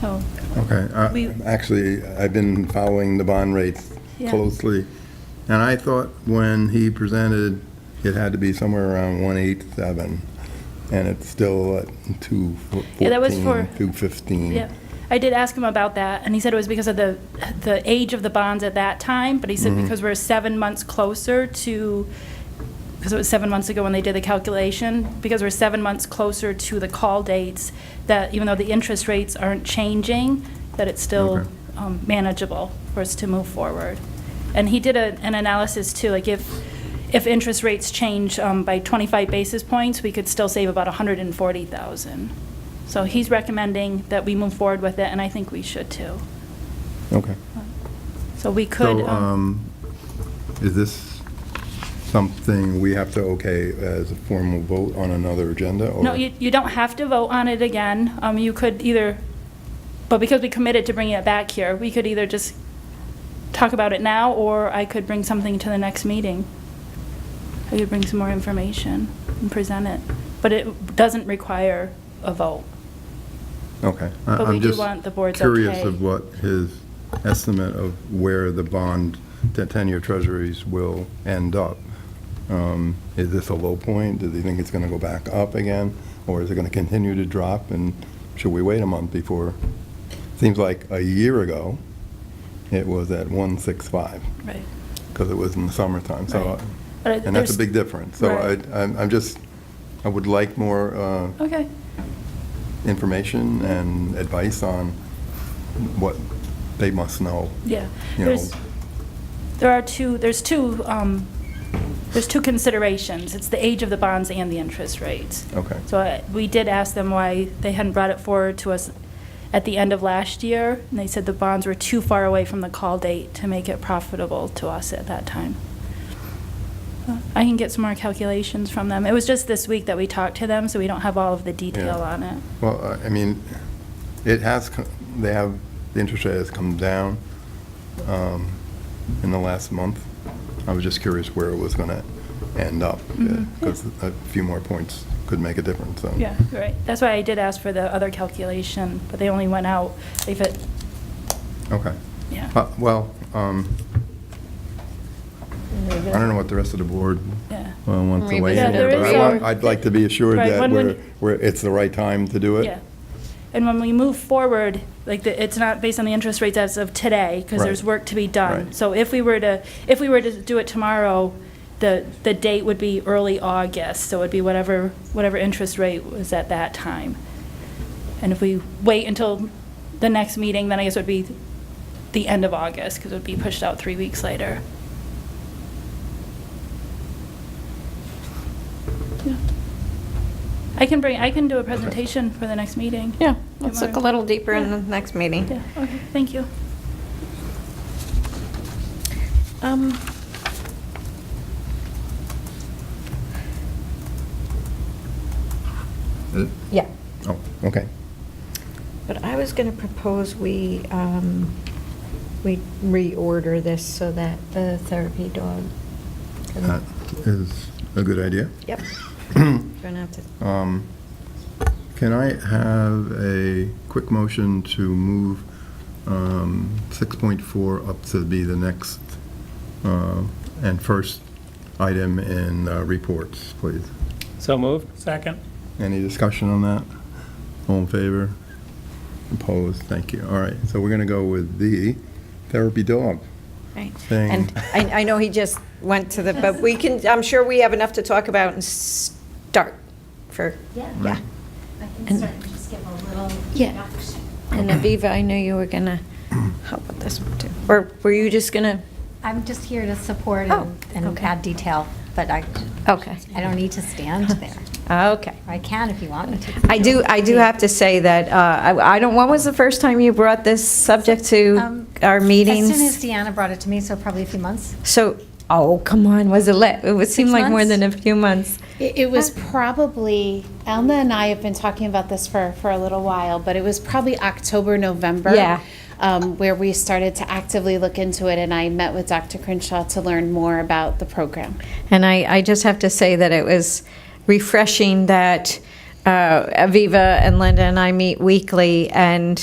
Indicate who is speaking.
Speaker 1: so,
Speaker 2: Okay,
Speaker 1: We-
Speaker 2: I- actually, I've been following the bond rates
Speaker 1: Yeah.
Speaker 2: closely, and I thought when he presented, it had to be somewhere around 187, and it's still at 214,
Speaker 1: Yeah, that was for-
Speaker 2: 215.
Speaker 1: yeah. I did ask him about that, and he said it was because of the, the age of the bonds at that time, but he said because we're seven months closer to, because it was seven months ago when they did the calculation, because we're seven months closer to the call dates, that even though the interest rates aren't changing, that it's still
Speaker 2: Okay.
Speaker 1: um, manageable for us to move forward. And he did a- an analysis too, like if, if interest rates change um, by 25 basis points, we could still save about 140,000. So he's recommending that we move forward with it, and I think we should too.
Speaker 2: Okay.
Speaker 1: So we could.
Speaker 2: So, um, is this something we have to okay as a formal vote on another agenda? or-
Speaker 1: No, you, you don't have to vote on it again. Um, you could either, but because we committed to bringing it back here, we could either just talk about it now, or I could bring something to the next meeting. I could bring some more information and present it, but it doesn't require a vote.
Speaker 2: Okay. I-
Speaker 1: But we
Speaker 2: I'm
Speaker 1: do
Speaker 2: just
Speaker 1: want the board's
Speaker 2: Curious
Speaker 1: okay.
Speaker 2: of what his estimate of where the bond, the 10-year treasuries will end up. Um, Is this a low point? Does he think it's going to go back up again? Or is it going to continue to drop? And should we wait a month before? Seems like a year ago, it was at 165,
Speaker 1: Right.
Speaker 2: because it was in the summertime. So,
Speaker 1: Right. But I-
Speaker 2: and that's
Speaker 1: there's-
Speaker 2: a big difference. So I,
Speaker 1: Right.
Speaker 2: I'm I'm just, I would like more uh,
Speaker 1: Okay,
Speaker 2: information and advice on what they must know,
Speaker 1: yeah.
Speaker 2: you know.
Speaker 1: There's- There are two, there's two, um, there's two considerations. It's the age of the bonds and the interest rates.
Speaker 2: Okay.
Speaker 1: So uh, we did ask them why they hadn't brought it forward to us at the end of last year, and they said the bonds were too far away from the call date to make it profitable to us at that time. Uh, I can get some more calculations from them. It was just this week that we talked to them, so we don't have all of the detail
Speaker 2: Yeah.
Speaker 1: on it.
Speaker 2: Well, I I mean, it has, co- they have, the interest rate has come down um, in the last month. I was just curious where it was going to end up,
Speaker 1: Mhm.
Speaker 2: because a few more points could make a difference, so.
Speaker 1: Yeah, you're right. That's why I did ask for the other calculation, but they only went out if it,
Speaker 2: Okay.
Speaker 1: yeah.
Speaker 2: Uh, Well, um, I don't know what the rest of the board
Speaker 1: Yeah.
Speaker 2: uh, wants to weigh in.
Speaker 1: Yeah,
Speaker 2: on,
Speaker 1: there
Speaker 2: but
Speaker 1: is
Speaker 2: I want-
Speaker 1: a-
Speaker 2: I'd like to be assured
Speaker 1: Right,
Speaker 2: that
Speaker 1: when- when-
Speaker 2: we're, we're- it's the right time to do it.
Speaker 1: Yeah. And when we move forward, like, the- it's not based on the interest rates as of today, because
Speaker 2: Right.
Speaker 1: there's work to be done.
Speaker 2: Right.
Speaker 1: So if we were to, if we were to do it tomorrow, the, the date would be early August, so it'd be whatever, whatever interest rate was at that time. And if we wait until the next meeting, then I guess it would be the end of August, because it would be pushed out three weeks later. Yeah. I can bring, I can do a presentation for the next meeting.
Speaker 3: Yeah,
Speaker 1: You
Speaker 3: let's look a
Speaker 1: wanna-
Speaker 3: little deeper in
Speaker 1: Yeah.
Speaker 3: the next meeting.
Speaker 1: Yeah, okay, thank you.
Speaker 3: Um,
Speaker 2: Uh,
Speaker 3: Yeah,
Speaker 2: Oh, okay.
Speaker 3: but I was going to propose we, um, we reorder this so that the therapy dog. can-
Speaker 2: That is a good idea.
Speaker 3: Yep. Gonna have to-
Speaker 2: Um, Can I have a quick motion to move um, 6.4 up to be the next uh, and first item in uh, reports, please?
Speaker 4: So moved.
Speaker 5: Second.
Speaker 2: Any discussion on that? All in favor? Opposed? Thank you. All right, so we're going to go with the therapy dog
Speaker 3: Right.
Speaker 2: thing.
Speaker 3: And I, I know he just went to the, but we can, I'm sure we have enough to talk about and start for,
Speaker 6: Yeah.
Speaker 3: yeah.
Speaker 6: I can certainly just give a little
Speaker 3: Yeah.
Speaker 6: introduction.
Speaker 3: And Aviva, I knew you were going to help with this one too. Or were you just going to?
Speaker 6: I'm just here to support
Speaker 3: Oh,
Speaker 6: and and
Speaker 3: okay.
Speaker 6: add detail, but I,
Speaker 3: Okay.
Speaker 6: I don't need to stand there.
Speaker 3: Okay.
Speaker 6: I can if you want me to.
Speaker 3: I do, I do have to say that, uh, I I don't, when was the first time you brought this subject to
Speaker 6: Um,
Speaker 3: our meetings?
Speaker 6: As soon as Deanna brought it to me, so probably a few months.
Speaker 3: So, oh, come on, was it lit? It would seem
Speaker 6: Six
Speaker 3: like more
Speaker 6: months?
Speaker 3: than a few months.
Speaker 7: It, it was
Speaker 3: Huh.
Speaker 7: probably Elna and I have been talking about this for for a little while, but it was probably October, November.
Speaker 3: Yeah.
Speaker 7: Um, where we started to actively look into it, and I met with Dr. Crenshaw to learn more about the program.
Speaker 3: And I, I just have to say that it was refreshing that uh, Aviva and Linda and I meet weekly, and